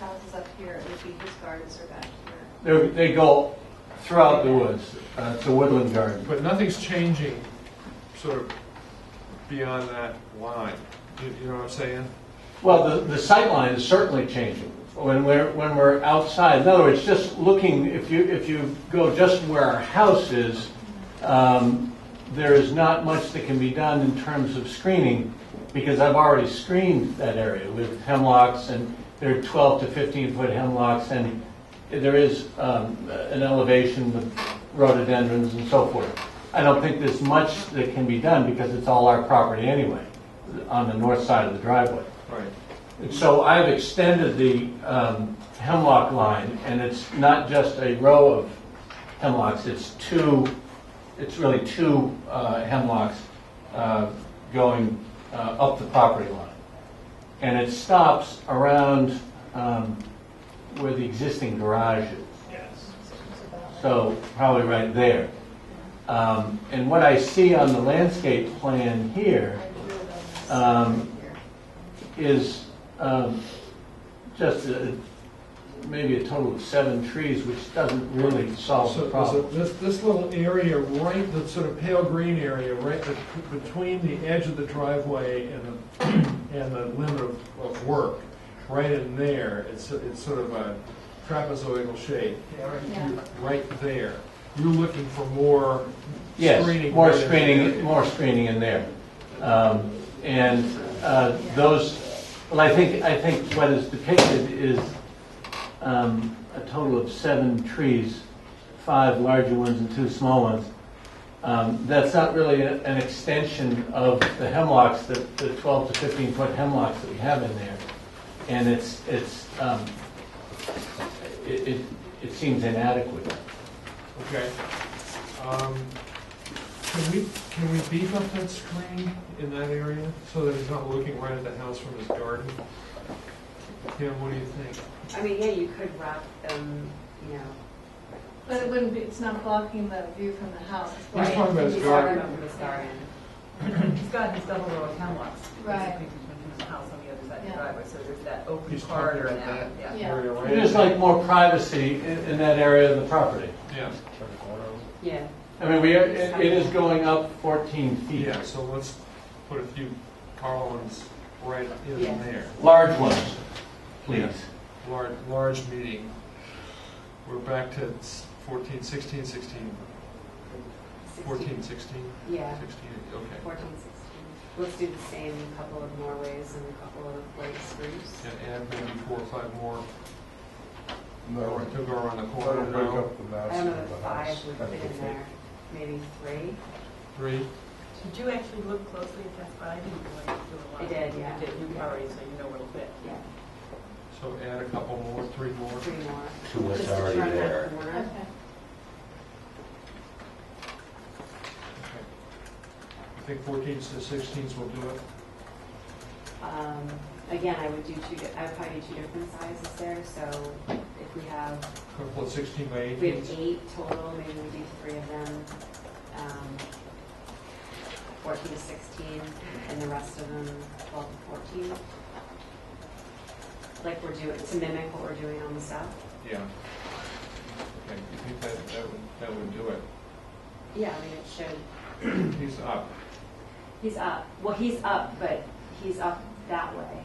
house is up here, it would be his gardens are back here. They're- They go throughout the woods. Uh, It's a woodland garden. But nothing's changing sort of beyond that line. You you know what I'm saying? Well, the, the sight line is certainly changing when we're, when we're outside. In other words, just looking, if you, if you go just where our house is, um, there is not much that can be done in terms of screening because I've already screened that area with hemlocks and there are 12 to 15 foot hemlocks and there is um, an elevation with rhododendrons and so forth. I don't think there's much that can be done because it's all our property anyway on the north side of the driveway. Right. And so I've extended the um, hemlock line, and it's not just a row of hemlocks, it's two, it's really two uh, hemlocks uh, going uh, up the property line. And it stops around um, where the existing garage is. So probably right there. Um, And what I see on the landscape plan here um, is um, just uh, maybe a total of seven trees, which doesn't really solve So the there's a- problem. this, this little area, right, the sort of pale green area, right bet- between the edge of the driveway and the, and the limit of, of work, right in there, it's, it's sort of a trapezoidal shape, Yeah. right there. You're looking for more Yes, screening. more right in screening, there. more screening in there. Um, And uh, those, well, I think, I think what is depicted is um, a total of seven trees, five larger ones and two small ones. Um, That's not really a- an extension of the hemlocks, the the 12 to 15 foot hemlocks that we have in there. And it's, it's, um, it, it- it seems inadequate. Okay. Um, Can we, can we beef up that screen in that area so that he's not looking right at the house from his garden? Kim, what do you think? I mean, yeah, you could wrap them, you know. But it wouldn't be, it's not blocking the view from the house. It's He's blocking- talking about his He's garden. talking about his garden. He's got his double row of hemlocks, Right. basically between his house on the other side of Yeah. the driveway, so there's that open He's talking corridor about now, that yeah. Yeah. area right It is like more privacy in, in that area of the property. Yeah, Yeah. I mean, we, are- it it is going up 14 feet, yeah, so let's put a few columns right in Yeah. there. large ones, please. Large, large meeting. We're back to s- 14, 16, 16, 14, 16, Yeah, 16, okay. fourteen, sixteen. Let's do the same, a couple of Norways and a couple of like spruce. And add maybe four or five more, No, or to go around the that'll corner break now. up the I mass don't know of that the house. five would kind of fit a in thing. there, maybe three. Three, Did you actually look closely at that spot? I didn't really do a lot. I of- did, you yeah. did, you already, so you know where it'll fit. Yeah, so add a couple more, three more. three more. Too much Just to already turn that there. corner. Okay. Okay. I think 14s to 16s will do it. Um, Again, I would do two, di- I would probably do two different sizes there, so if we have Couple of 16 by We have 18s. eight total, maybe we do three of them, um, 14 to 16, and the rest of them 12 to 14. Like we're doing, to mimic what we're doing on the south? Yeah. Okay, you think that, that would, that would do it? Yeah, I mean, it should, He's up. he's up, well, he's up, but he's up that way.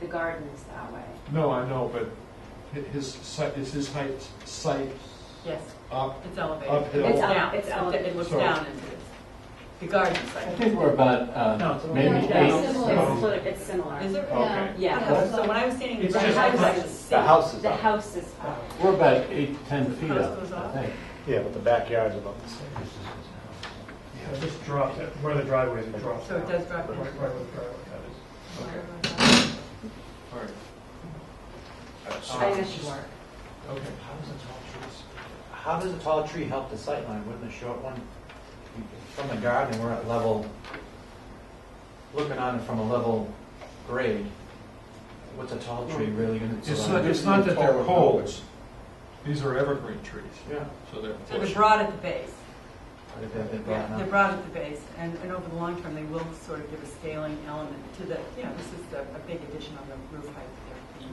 The garden is that way. No, I know, but hi- his site, is his height, site Yes, up? it's elevated. Uphill. It's up- down. it's elevated. It looks Sorry. down into this, the garden I site. think we're about, uh, No. maybe Yeah, eight. it's It's similar. similar, it's Is similar. it? Yeah. Okay. Yeah. So when I was standing. Oh. It's the just garden like site was The house is The up. house is up. We're about eight, 10 feet House up, goes up. I think. Yeah, but the backyard's about the same. I just dropped it, where the driveway is, it drops So it down. does drop Right, down. right where the driveway is. Okay, all right. Uh, I know she worked. Okay. How does a tall tree, how does a tall tree help the sightline, wouldn't a short one? From the garden, we're at level, looking on it from a level grade, what's a tall tree really gonna? Hmm. It's not, it's not that they're poles. These are evergreen trees, Yeah. so they're. So they're broad at the base. But if they've been brought Yeah, up. they're broad at the base, and, and over the long term, they will sort of give a scaling element to the, you know, this is a, a big addition on the roof height